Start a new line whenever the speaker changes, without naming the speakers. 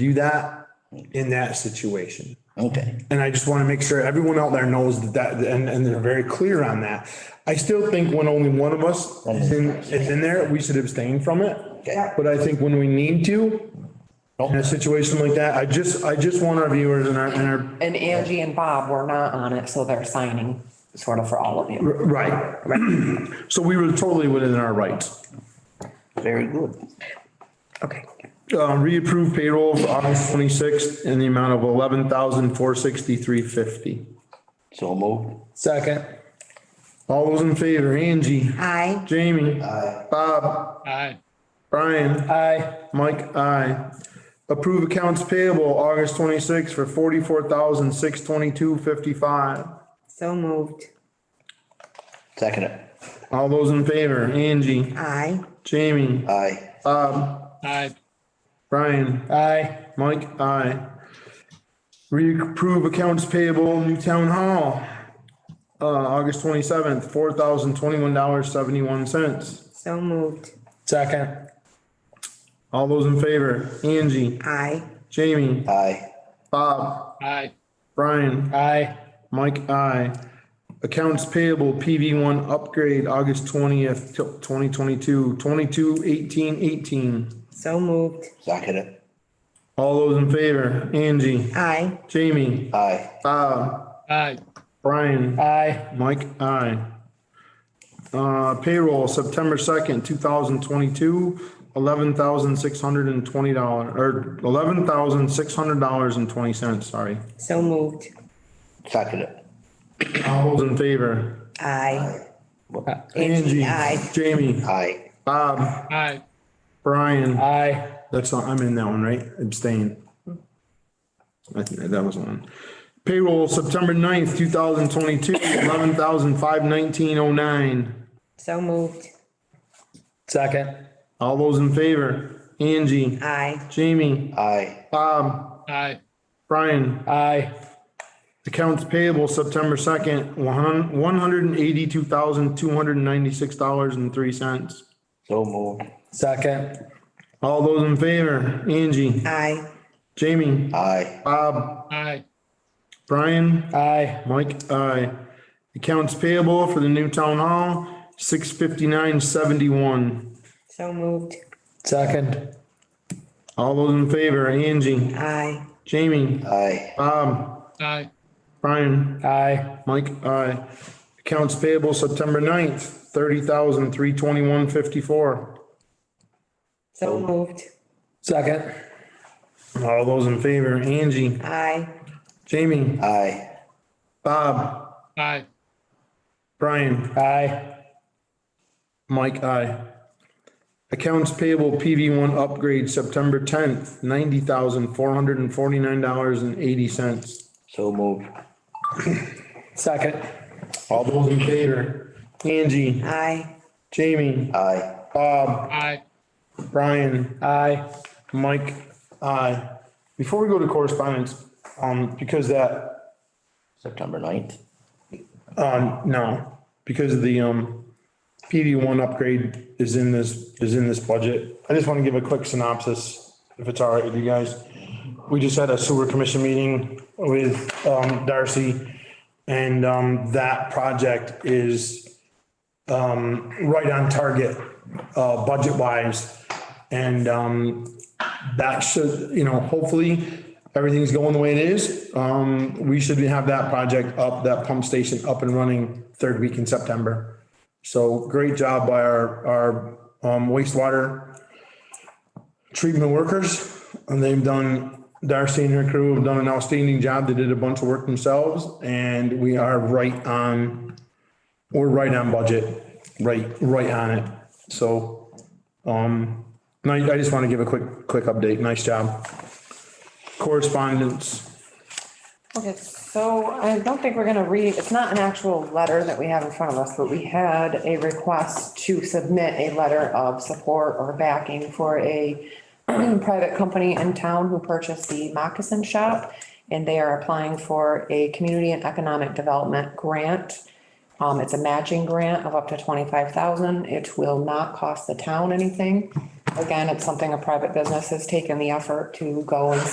do that in that situation.
Okay,
And I just want to make sure everyone out there knows that that, and, and they're very clear on that. I still think when only one of us is in, is in there, we should abstain from it.
Okay.
But I think when we need to, in a situation like that, I just, I just want our viewers and our, and our,
And Angie and Bob were not on it, so they're signing sort of for all of you.
right. So we were totally within our rights.
very good.
Okay.
Uh, reapprove payroll for August twenty-sixth in the amount of eleven thousand, four sixty-three fifty.
So moved.
Second. All those in favor, Angie?
Aye.
Jamie? Aye. Bob?
aye,
Brian? Aye. Mike? Aye. Approve accounts payable August twenty-sixth for forty-four thousand, six twenty-two, fifty-five.
So moved.
Second it.
All those in favor, Angie?
Aye.
Jamie?
Aye.
aye,
Brian? Aye. Mike? Aye. Reapprove accounts payable New Town Hall, uh, August twenty-seventh, four thousand, twenty-one dollars, seventy-one cents.
So moved.
Second. All those in favor, Angie,
Aye.
Jamie,
Aye.
Bob,
aye,
Brian. Aye. Mike, aye. Accounts payable PV one upgrade, August twentieth, twenty twenty-two, twenty-two eighteen eighteen.
So moved.
Second it.
All those in favor, Angie,
Aye.
Jamie,
Aye.
Bob,
aye,
Brian. Aye. Mike, aye. Uh, payroll, September second, two thousand twenty-two, eleven thousand six hundred and twenty dollar, or eleven thousand six hundred dollars and twenty cents, sorry.
So moved.
Second it.
All those in favor?
Aye.
Angie.
aye.
Jamie.
Aye.
Bob.
aye,
Brian. Aye. That's, all- I'm in that one, right? Abstain. I think that was one. Payroll, September 9th, two thousand twenty-two, eleven thousand five nineteen oh nine.
So moved.
Second.
All those in favor? Angie.
Aye.
Jamie.
Aye.
Bob.
aye,
Brian.
Aye.
Accounts payable, September second, one, one hundred and eighty-two thousand two hundred and ninety-six dollars and three cents.
So moved.
Second.
All those in favor? Angie.
Aye.
Jamie.
Aye.
Bob.
aye,
Brian.
Aye.
Mike. Aye. Accounts payable for the new town hall, six fifty-nine seventy-one.
So moved.
Second.
All those in favor, Angie.
Aye.
Jamie.
Aye.
Bob.
aye,
Brian.
Aye.
Mike. Aye. Accounts payable September 9th, thirty thousand three twenty-one fifty-four.
So moved.
Second.
All those in favor, Angie.
Aye.
Jamie.
Aye.
Bob.
aye,
Brian.
Aye.
Mike, aye. Accounts payable PV one upgrade, September tenth, ninety thousand, four hundred and forty-nine dollars and eighty cents.
So moved.
Second.
All those in favor? Angie,
Aye.
Jamie,
Aye.
Bob,
aye,
Brian,
Aye.
Mike, aye. Before we go to correspondence, um, because that,
September ninth.
um, no, because of the, um, PV one upgrade is in this, is in this budget. I just want to give a quick synopsis, if it's all right with you guys. We just had a sewer commission meeting with, um, Darcy. And, um, that project is, um, right on target, uh, budget wise. And, um, that should, you know, hopefully everything's going the way it is. Um, we should have that project up, that pump station up and running third week in September. So great job by our, our um, wastewater treatment workers. And they've done, Darcy and her crew have done an outstanding job. They did a bunch of work themselves and we are right on, we're right on budget, right, right on it. So, um, and I, I just want to give a quick, quick update. Nice job. Correspondence.
Okay, so I don't think we're gonna read, it's not an actual letter that we have in front of us, but we had a request to submit a letter of support or backing for a private company in town who purchased the moccasin shop, and they are applying for a community and economic development grant. Um, it's a matching grant of up to twenty-five thousand. It will not cost the town anything. Again, it's something a private business has taken the effort to go and